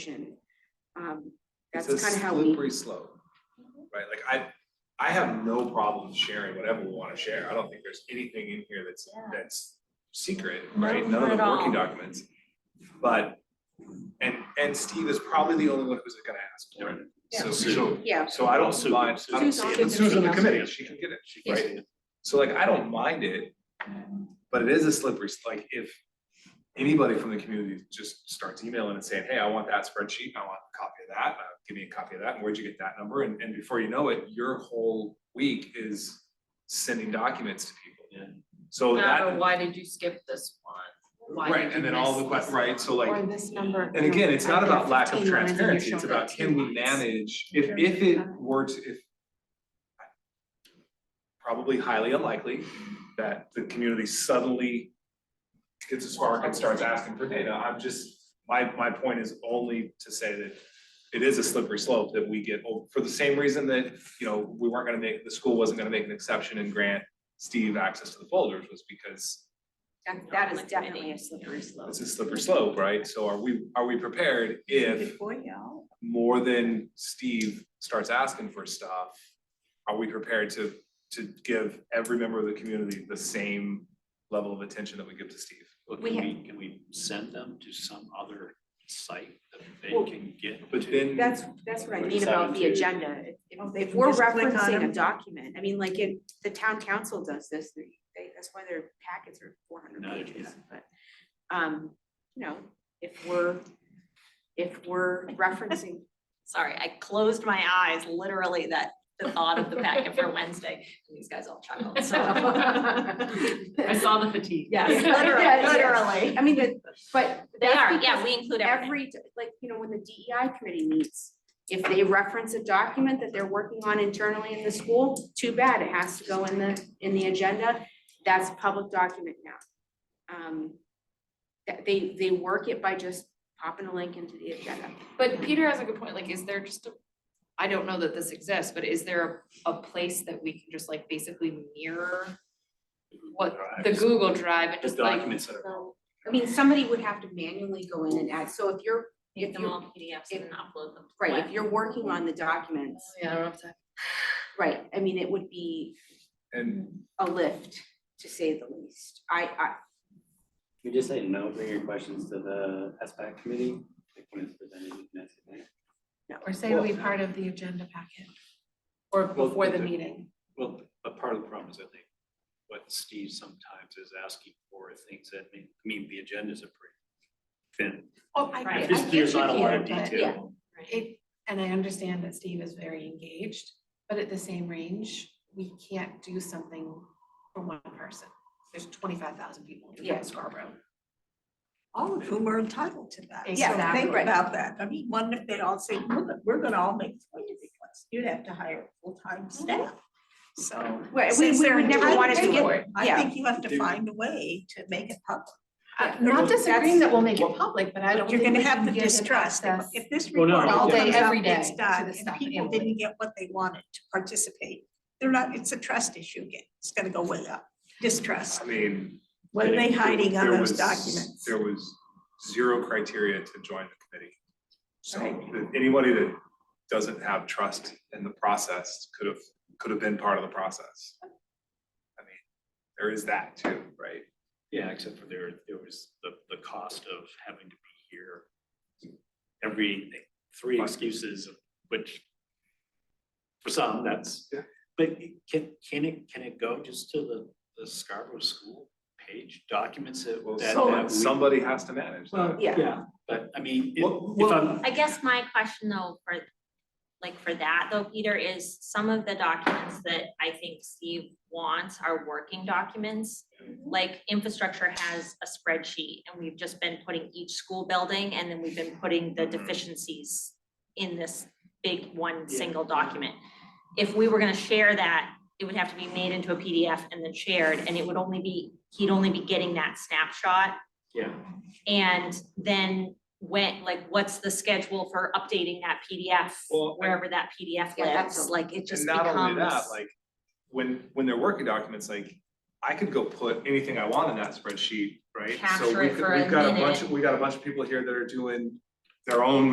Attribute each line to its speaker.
Speaker 1: solution. Um, That's
Speaker 2: It's a
Speaker 1: kind of how we, Mm-hmm.
Speaker 2: Slippery slope, right? Like I, I have no problem sharing whatever we wanna share. I don't think there's anything in here that's, that's secret,
Speaker 3: No,
Speaker 2: right? None
Speaker 3: not
Speaker 2: of the
Speaker 3: at
Speaker 2: working
Speaker 3: all.
Speaker 2: documents. But, and, and Steve is probably the only one who's gonna ask for it. So, so,
Speaker 1: yeah,
Speaker 2: so I don't
Speaker 4: Sue.
Speaker 2: mind, I don't
Speaker 1: Sue's
Speaker 2: see
Speaker 1: on
Speaker 2: it.
Speaker 1: the
Speaker 2: Sue's on the
Speaker 1: committee.
Speaker 2: committee, she can get it, she can
Speaker 1: Yes.
Speaker 2: get it. So like, I don't mind it, but it is a slippery, s- like if anybody from the community just starts emailing and saying, hey, I want that spreadsheet, I want a copy of that, uh, give me a copy of that, and where'd you get that number? And, and before you know it, your whole week is sending documents to people. So
Speaker 3: Not,
Speaker 2: that,
Speaker 3: why did you skip this one? Why
Speaker 2: right,
Speaker 3: did
Speaker 2: and
Speaker 3: you
Speaker 2: then all
Speaker 3: miss
Speaker 2: the, que-
Speaker 3: this
Speaker 2: right, so like,
Speaker 5: Or this number.
Speaker 2: and again, it's not
Speaker 5: I've
Speaker 2: about
Speaker 5: got
Speaker 2: lack of
Speaker 5: 15 lines in your
Speaker 2: transparency, it's
Speaker 5: shoulder,
Speaker 2: about can we
Speaker 5: two lines.
Speaker 2: manage, if,
Speaker 5: Sure.
Speaker 2: if it were to, if. Probably highly unlikely that the community suddenly gets a spark and starts asking for data, I'm just, my, my point is only to say that. It is a slippery slope that we get, oh, for the same reason that, you know, we weren't gonna make, the school wasn't gonna make an exception and grant Steve access to the folders was because
Speaker 1: that, that is definitely a slippery slope.
Speaker 2: it's a slippery slope, right? So are we, are we prepared if more than Steve starts asking for stuff, are we prepared to, to give every member of the community the same level of attention that we give to Steve?
Speaker 4: Well,
Speaker 1: We
Speaker 4: can
Speaker 1: ha-
Speaker 4: we, can we send them to some other site that they
Speaker 1: Well,
Speaker 4: can get?
Speaker 2: But
Speaker 4: to?
Speaker 2: then,
Speaker 1: That's, that's what I mean about the agenda. If-
Speaker 5: Oh, they
Speaker 1: If
Speaker 5: can
Speaker 1: we're
Speaker 5: just click on
Speaker 1: referencing a
Speaker 5: them.
Speaker 1: document, I mean, like if the town council does this, they, they- that's why their packets are four hundred
Speaker 4: No,
Speaker 1: pages, but, um, you know, if we're, if we're referencing,
Speaker 6: Sorry, I closed my eyes literally that the thought of the packet for Wednesday. and These guys all chuckled. So
Speaker 3: I saw the fatigue.
Speaker 6: yes,
Speaker 1: Yeah,
Speaker 6: literally,
Speaker 1: yeah.
Speaker 6: literally.
Speaker 1: I mean, but, but
Speaker 6: They
Speaker 1: that's
Speaker 6: are,
Speaker 1: because
Speaker 6: yeah, we include everything.
Speaker 1: every, like, you know, when the DEI committee meets, if they reference a document that they're working on internally in the school, too bad, it has to go in the, in the agenda. That's a public document now. Um, that they, they work it by just popping a link into the agenda.
Speaker 3: But Peter has a good point, like, is there just a, I don't know that this exists, but is there a, a place that we can just like basically mirror what, the Google Drive and
Speaker 4: The
Speaker 3: just like,
Speaker 4: documents that are,
Speaker 1: So, I mean, somebody would have to manually go in and add, so if you're,
Speaker 6: Make
Speaker 1: if
Speaker 6: them all
Speaker 1: you're,
Speaker 6: PDFs
Speaker 1: if-
Speaker 6: and upload them. to
Speaker 1: right, if
Speaker 6: web.
Speaker 1: you're working on the documents,
Speaker 3: Oh, yeah, I don't know if that.
Speaker 1: right, I mean, it would be
Speaker 2: and
Speaker 1: a lift, to say the least. I, I,
Speaker 7: You just say no, bring your questions to the SBAC committee, like when it's presented, you can ask it there.
Speaker 5: Or say it'll be part of the agenda packet. Or
Speaker 4: Well,
Speaker 5: before the
Speaker 4: the-
Speaker 5: meeting.
Speaker 4: well, but part of the problem is I think what Steve sometimes is asking for are things that may, I mean, the agendas are pretty thin.
Speaker 5: Oh, I, I
Speaker 4: It's
Speaker 5: get
Speaker 4: just- There's not a lot
Speaker 5: you
Speaker 4: of
Speaker 5: here, but
Speaker 1: yeah.
Speaker 4: detail.
Speaker 5: it, and I understand that Steve is very engaged, but at the same range, we can't do something for one person. There's twenty-five thousand people
Speaker 1: Yeah.
Speaker 5: in Scarborough.
Speaker 8: all of whom are entitled to that. So think
Speaker 5: Exactly.
Speaker 8: about that. I mean, one, if they all say, we're, gonna- we're gonna all make twenty requests, you'd have to hire full-time
Speaker 5: Mm-hmm.
Speaker 8: staff. So
Speaker 1: Well, we,
Speaker 8: Since
Speaker 1: we
Speaker 8: they're
Speaker 1: would never want it to
Speaker 8: entitled
Speaker 1: get,
Speaker 8: I
Speaker 1: yeah,
Speaker 8: think you have to
Speaker 4: Dude.
Speaker 8: find a way to make it public.
Speaker 5: I'm Uh, not disagreeing that we'll make it public, but I don't
Speaker 8: You're
Speaker 5: think
Speaker 8: gonna
Speaker 5: we
Speaker 8: have
Speaker 5: can
Speaker 8: the
Speaker 5: give him
Speaker 8: distrust. If-
Speaker 5: access.
Speaker 8: If this
Speaker 4: Well, no,
Speaker 8: report all
Speaker 4: All day,
Speaker 8: comes out,
Speaker 5: every
Speaker 8: it's
Speaker 5: day to
Speaker 8: done,
Speaker 5: the
Speaker 8: and
Speaker 5: stuff
Speaker 8: people
Speaker 5: anyway.
Speaker 8: didn't get what they wanted to participate, they're not, it's a trust issue again. It's gonna go way up. Distrust.
Speaker 2: I mean.
Speaker 8: What are they hiding on
Speaker 2: there
Speaker 8: those
Speaker 2: was-
Speaker 8: documents?
Speaker 2: There was zero criteria to join the committee. So
Speaker 8: Right.
Speaker 2: that anybody that doesn't have trust in the process could have, could have been part of the process. I mean, there is that too, right?
Speaker 4: Yeah, except for there, there was the, the cost of having to be here. Every, three excuses, of which for some, that's,
Speaker 2: Yeah.
Speaker 4: but can, can it, can it go just to the, the Scarborough School page documents that?
Speaker 2: Well,
Speaker 4: that-
Speaker 2: some-
Speaker 4: that we-
Speaker 2: somebody has to manage that.
Speaker 1: yeah.
Speaker 4: Yeah, but I mean, if
Speaker 2: Well,
Speaker 4: if I'm,
Speaker 6: I guess my question though, for, like for that though, Peter, is some of the documents that I think Steve wants are working documents. Like infrastructure has a spreadsheet and we've just been putting each school building and then we've been putting the
Speaker 2: Mhm.
Speaker 6: deficiencies in this big one
Speaker 4: Yeah.
Speaker 6: single document. If we were gonna share that, it would have to be made into a PDF and then shared and it would only be, he'd only be getting that snapshot
Speaker 4: yeah,
Speaker 6: and then when, like, what's the schedule for updating that PDF,
Speaker 2: Well, I-
Speaker 6: wherever that PDF
Speaker 1: Yeah, that's
Speaker 6: lives,
Speaker 1: a-
Speaker 6: like, it just
Speaker 2: And
Speaker 6: becomes.
Speaker 2: not only that, like, when, when they're working documents, like, I could go put anything I want in that spreadsheet, right? So
Speaker 6: Capture
Speaker 2: we
Speaker 6: it
Speaker 2: could-
Speaker 6: for a
Speaker 2: We've got a bunch,
Speaker 6: minute.
Speaker 2: of- we got a bunch of people here that are doing their own